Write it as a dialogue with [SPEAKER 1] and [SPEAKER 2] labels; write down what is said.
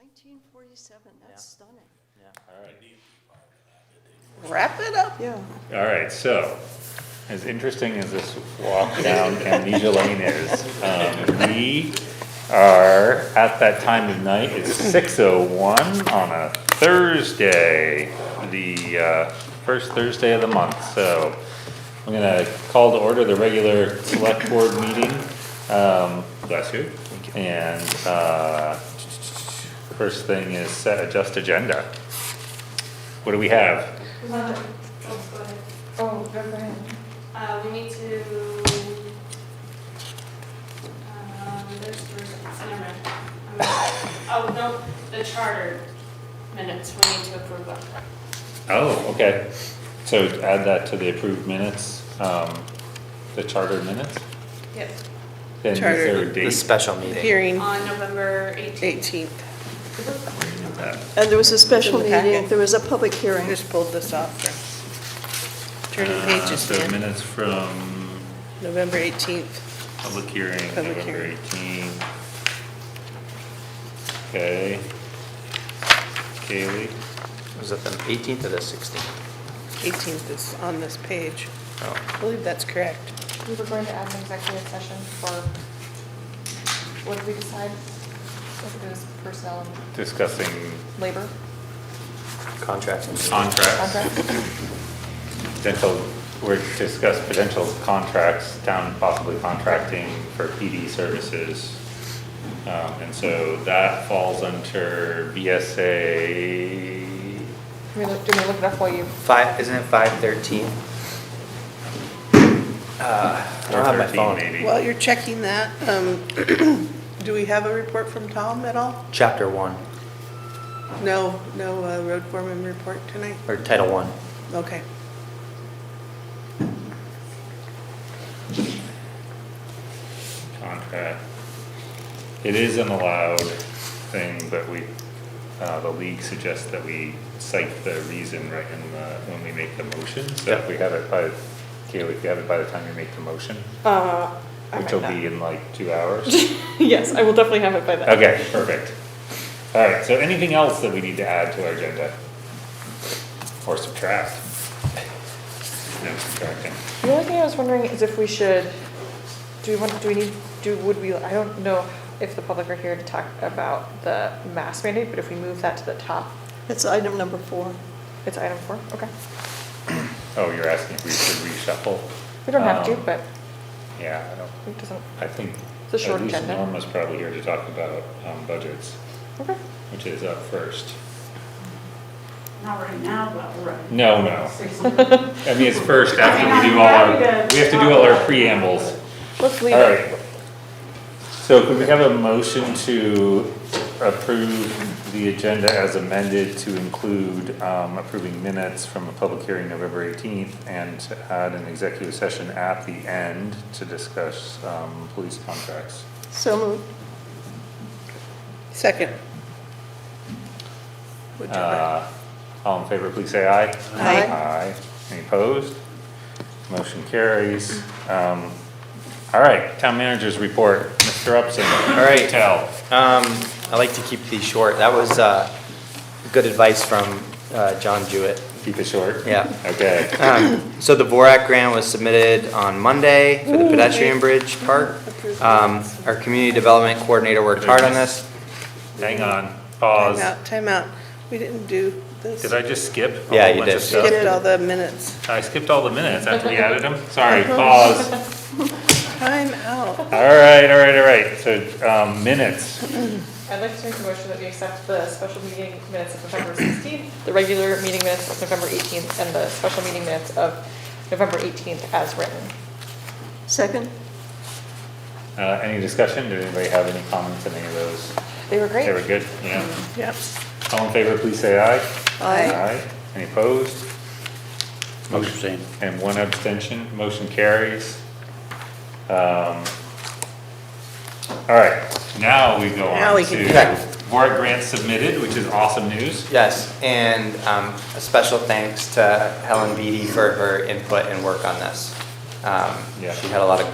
[SPEAKER 1] 1947, that's stunning.
[SPEAKER 2] All right.
[SPEAKER 1] Wrap it up. Yeah.
[SPEAKER 2] All right, so, as interesting as this walk down Amnesia Lane is, um, we are at that time of night, it's six oh one on a Thursday, the, uh, first Thursday of the month, so I'm gonna call to order the regular select board meeting, um, bless you, and, uh, first thing is set adjust agenda. What do we have?
[SPEAKER 3] Uh, oh, go ahead.
[SPEAKER 4] Oh, go ahead.
[SPEAKER 3] Uh, we need to, um, there's, there's, never mind. I'm- Oh, no, the charter minutes, we need to approve them.
[SPEAKER 2] Oh, okay. So add that to the approved minutes, um, the charter minutes?
[SPEAKER 3] Yep.
[SPEAKER 2] Then is
[SPEAKER 5] Charter.
[SPEAKER 2] there a
[SPEAKER 6] The
[SPEAKER 2] date?
[SPEAKER 6] special meeting.
[SPEAKER 5] Hearing
[SPEAKER 3] On November 18th.
[SPEAKER 5] 18th,
[SPEAKER 2] for that?
[SPEAKER 1] And there was a special
[SPEAKER 5] In the packet.
[SPEAKER 1] meeting, there was a public hearing.
[SPEAKER 5] just pulled this off for, turning
[SPEAKER 2] Uh,
[SPEAKER 5] pages,
[SPEAKER 2] So
[SPEAKER 5] Dan,
[SPEAKER 2] minutes from
[SPEAKER 5] November 18th.
[SPEAKER 2] public hearing,
[SPEAKER 5] Public
[SPEAKER 2] November
[SPEAKER 5] hearing.
[SPEAKER 2] eighteen. Okay. Kaylee,
[SPEAKER 6] Was it the 18th or the 16th?
[SPEAKER 5] 18th is on this page.
[SPEAKER 6] Oh,
[SPEAKER 5] I believe that's correct.
[SPEAKER 4] We were going to add an executive session for, what did we decide? If it was personnel and
[SPEAKER 2] discussing
[SPEAKER 4] labor
[SPEAKER 6] Contract.
[SPEAKER 2] contracts,
[SPEAKER 4] contract?
[SPEAKER 2] potential, we're discuss potential contracts, town possibly contracting for PD services. Um, and so that falls under BSA
[SPEAKER 4] Can we look, do we look it up while you?
[SPEAKER 6] Five, isn't it 513? Uh, I
[SPEAKER 2] four
[SPEAKER 6] don't have my
[SPEAKER 2] thirteen
[SPEAKER 6] phone.
[SPEAKER 2] maybe.
[SPEAKER 5] While you're checking that, um, do we have a report from Tom at all?
[SPEAKER 6] Chapter 1,
[SPEAKER 5] No, no uh, road foreman report tonight?
[SPEAKER 6] or Title 1.
[SPEAKER 5] Okay.
[SPEAKER 2] Contract. It is an allowed thing, but we, uh, the league suggests that we cite the reason right in the, when we make the motion. So if
[SPEAKER 6] Yeah.
[SPEAKER 2] we have it by, Kaylee, if you have it by the time you make the motion,
[SPEAKER 4] Uh,
[SPEAKER 2] which will be in like two hours.
[SPEAKER 4] Yes, I will definitely have it by then.
[SPEAKER 2] Okay, perfect. All right, so anything else that we need to add to our agenda? Or subtract? No subtracting.
[SPEAKER 4] The only thing I was wondering is if we should, do we want, do we need, do, would we, I don't know if the public are here to talk about the mask mandate, but if we move that to the top,
[SPEAKER 1] That's item number four.
[SPEAKER 4] it's item four, okay.
[SPEAKER 2] Oh, you're asking if we should reshuffle?
[SPEAKER 4] We don't have to,
[SPEAKER 2] Um,
[SPEAKER 4] but
[SPEAKER 2] Yeah, I don't,
[SPEAKER 4] it doesn't,
[SPEAKER 2] I think.
[SPEAKER 4] It's a short
[SPEAKER 2] at least
[SPEAKER 4] agenda.
[SPEAKER 2] Norma's probably here to talk about, um, budgets,
[SPEAKER 4] okay.
[SPEAKER 2] which is up first.
[SPEAKER 7] Not right now, but right.
[SPEAKER 2] No, no.
[SPEAKER 7] Seriously.
[SPEAKER 2] I mean, it's first after we do all our, we have to do all our preambles.
[SPEAKER 4] Let's leave
[SPEAKER 2] All
[SPEAKER 4] it.
[SPEAKER 2] right. So could we have a motion to approve the agenda as amended to include um, approving minutes from a public hearing November 18th and to add an executive session at the end to discuss um, police contracts?
[SPEAKER 1] So moved.
[SPEAKER 5] Second. Whichever.
[SPEAKER 2] Uh, All in favor, please say aye.
[SPEAKER 5] Aye.
[SPEAKER 2] Aye. Any opposed? Motion carries. Um, All right, town managers report. Mr. Upson.
[SPEAKER 6] All right.
[SPEAKER 2] Tell.
[SPEAKER 6] Um, I like to keep these short. That was uh, good advice from uh, John Jewett.
[SPEAKER 2] Keep it short.
[SPEAKER 6] Yeah.
[SPEAKER 2] Okay.
[SPEAKER 6] So the Borak grant was submitted on Monday for the pedestrian bridge part. Um, Our community development coordinator worked hard on this.
[SPEAKER 2] Hang on, pause.
[SPEAKER 5] Timeout, timeout. We didn't do this.
[SPEAKER 2] Did I just skip? a
[SPEAKER 6] Yeah,
[SPEAKER 2] whole
[SPEAKER 6] you
[SPEAKER 2] bunch of
[SPEAKER 6] did.
[SPEAKER 2] stuff?
[SPEAKER 5] Skipped all the minutes.
[SPEAKER 2] I skipped all the minutes after we added them. Sorry, pause.
[SPEAKER 5] Timeout.
[SPEAKER 2] All right, all right, all right. So, um, minutes.
[SPEAKER 4] I'd like to make a motion that we accept the special meeting minutes of November 16th, the regular meeting minutes of November 18th, and the special meeting minutes of November 18th as written.
[SPEAKER 1] Second?
[SPEAKER 2] Uh, any discussion? Did anybody have any comments on any of those?
[SPEAKER 4] They were great.
[SPEAKER 2] They were good, yeah.
[SPEAKER 5] Yep.
[SPEAKER 2] All in favor, please say aye.
[SPEAKER 1] Aye.
[SPEAKER 2] Any opposed?
[SPEAKER 6] Motion.
[SPEAKER 2] And one abstention, motion carries. Um, All right, now we go
[SPEAKER 5] Now
[SPEAKER 2] on
[SPEAKER 5] we can do
[SPEAKER 2] to
[SPEAKER 6] that.
[SPEAKER 2] board grants submitted, which is awesome news.
[SPEAKER 6] Yes, and um, a special thanks to Helen Beatty for her input and work on this. Um,
[SPEAKER 2] Yeah.
[SPEAKER 6] She had a lot of